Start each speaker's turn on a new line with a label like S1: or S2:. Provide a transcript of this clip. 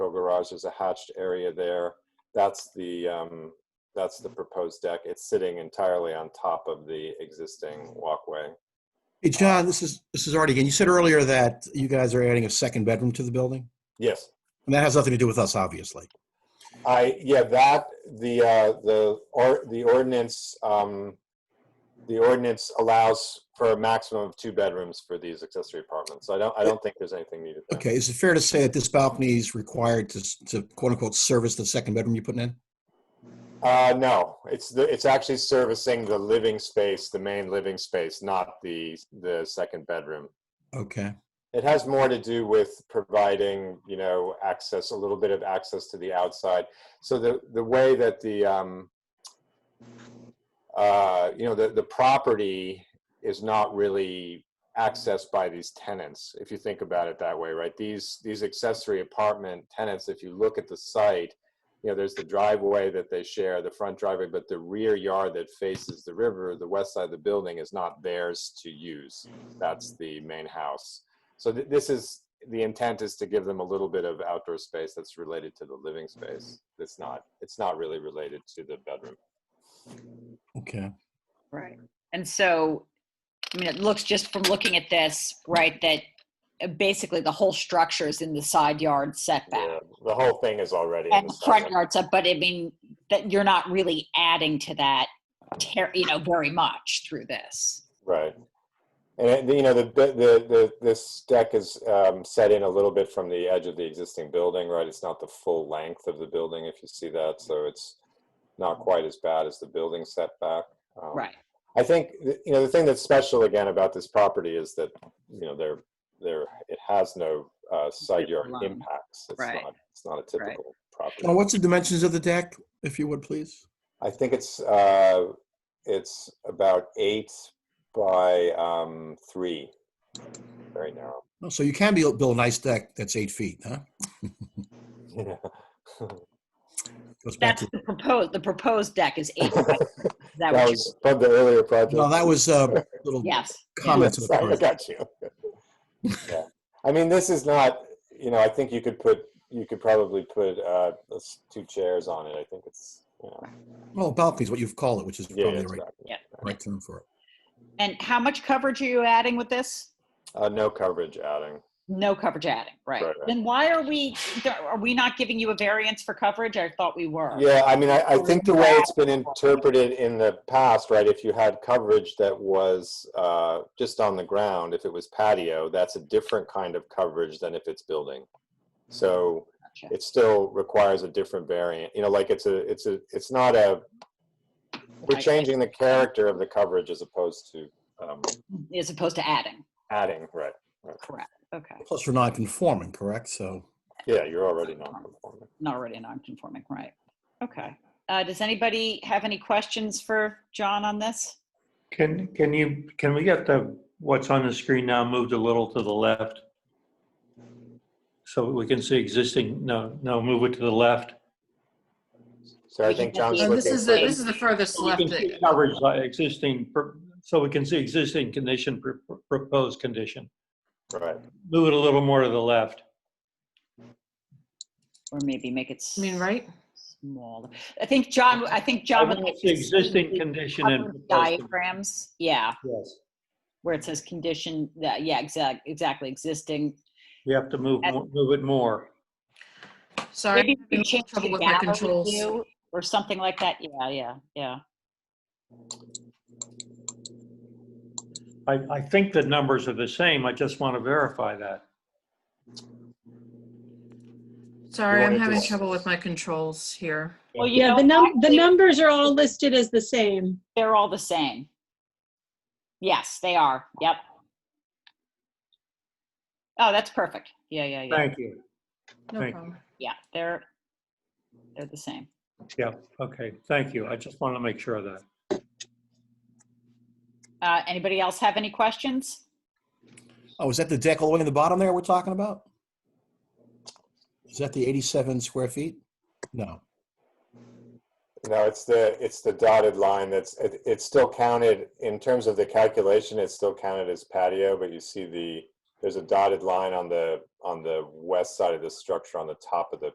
S1: garage. There's a hatched area there. That's the, um, that's the proposed deck. It's sitting entirely on top of the existing walkway.
S2: Hey, John, this is, this is Artie again. You said earlier that you guys are adding a second bedroom to the building?
S1: Yes,
S2: And that has nothing to do with us, obviously.
S1: I, yeah, that, the, uh, the, or, the ordinance, um, the ordinance allows for a maximum of two bedrooms for these accessory apartments. So I don't, I don't think there's anything needed there.
S2: Okay, is it fair to say that this balcony is required to, s- to quote unquote service the second bedroom you're putting in?
S1: Uh, no, it's the, it's actually servicing the living space, the main living space, not the, the second bedroom.
S2: Okay,
S1: It has more to do with providing, you know, access, a little bit of access to the outside. So the, the way that the, um, uh, you know, the, the property is not really accessed by these tenants, if you think about it that way, right? These, these accessory apartment tenants, if you look at the site, you know, there's the driveway that they share, the front driveway, but the rear yard that faces the river, the west side of the building is not theirs to use. That's the main house. So th- this is, the intent is to give them a little bit of outdoor space that's related to the living space.
S3: Mm-hmm.
S1: It's not, it's not really related to the bedroom.
S2: okay.
S3: Right. Um, And so, I mean, it looks just from looking at this, right, that uh, basically the whole structure is in the side yard setback.
S1: Yeah, The whole thing is already in
S3: And
S1: the
S3: the front
S1: setback.
S3: yard set, but I mean, that you're not really adding to that, ter- you know, very much through this.
S1: Right. And, it- you know, the, the, the, the- this deck is um, set in a little bit from the edge of the existing building, right? It's not the full length of the building, if you see that, so it's not quite as bad as the building setback. Um,
S3: Right.
S1: I think, th- you know, the thing that's special again about this property is that, you know, there, there, it has no uh, side yard
S3: Line.
S1: impacts. It's
S3: Right.
S1: not, it's not a
S3: Right.
S1: typical
S2: Now,
S1: property.
S2: what's the dimensions of the deck, if you would, please?
S1: I think it's, uh, it's about eight by um, three, very narrow.
S2: Oh, So you can be, build a nice deck that's eight feet, huh? Goes back to,
S3: That's the proposed, the proposed deck is eight. by-
S1: That
S3: Is that what you,
S1: was from the earlier project.
S2: no, that was a little
S3: yes.
S2: comment. to the
S1: Sorry, I
S2: part.
S1: got you. Yeah. I mean, this is not, you know, I think you could put, you could probably put uh, those two chairs on it. I think it's, you know,
S2: Well, balcony is what you've called it, which is
S1: yeah,
S2: probably the
S1: it's
S2: right,
S1: about-
S3: Yeah.
S2: right term for it.
S3: And how much coverage are you adding with this?
S1: Uh, no coverage outing.
S3: No coverage adding, right?
S1: Right, right.
S3: Then why are we, are we not giving you a variance for coverage? I thought we were.
S1: Yeah, I mean, I, I think the way it's been interpreted in the past, right? If you had coverage that was uh, just on the ground, if it was patio, that's a different kind of coverage than if it's building.
S4: Mm-hmm.
S1: So
S3: Gotcha.
S1: it still requires a different variant, you know, like it's a, it's a, it's not a, we're
S3: Right.
S1: changing the character of the coverage as opposed to um,
S3: as opposed to adding.
S1: adding, right?
S3: Correct. Okay.
S2: Plus, we're non-conforming, correct? So,
S1: Yeah, you're already non-conforming.
S3: Not already non-conforming, right? Okay. Uh, does anybody have any questions for John on this?
S5: Can, can you, can we get the, what's on the screen now moved a little to the left? So we can see existing, no, no, move it to the left.
S1: So I think John's
S3: Yeah,
S4: No,
S1: looking
S4: Uh, this is the,
S1: for-
S4: this is the furthest
S5: So we
S4: left.
S5: can see
S4: that-
S5: Coverage, uh, existing, pro- so we can see existing condition, pro- pro- proposed condition.
S1: Right.
S5: Move it a little more to the left.
S3: Or maybe make it
S4: I mean, right?
S3: smaller. I think John, I think
S5: I
S3: John would
S5: want
S3: like.
S5: to see Existing condition and.
S3: covered
S5: proposed
S3: Diagrams, yeah,
S5: condition. Yes.
S3: where it says condition, that- yeah, exact, exactly, existing.
S5: We have to move, more- move it more.
S4: Sorry.
S3: Maybe we
S4: having
S3: change
S4: trouble
S3: the
S4: with my
S3: gallery
S4: controls.
S3: view or something like that. Yeah, yeah, yeah.
S5: I, I think the numbers are the same. I just want to verify that.
S4: Sorry,
S1: You
S4: I'm
S1: wanted
S4: having
S1: to-
S4: trouble with my controls here.
S3: Well, you
S6: Yeah,
S3: know,
S6: the num, the
S3: actually,
S6: numbers are all listed as the same.
S3: They're all the same. Yes, they are. Yep. Oh, that's perfect. Yeah, yeah, yeah.
S5: Thank you.
S4: No
S5: Thank
S4: problem.
S3: Yeah, they're, they're the same.
S5: Yeah, okay, thank you. I just want to make sure of that.
S3: Uh, anybody else have any questions?
S2: oh, is that the deck all the way in the bottom there we're talking about? Is that the 87 square feet? No.
S1: No, it's the, it's the dotted line that's, it, it's still counted, in terms of the calculation, it's still counted as patio, but you see the, there's a dotted line on the, on the west side of the structure on the top of the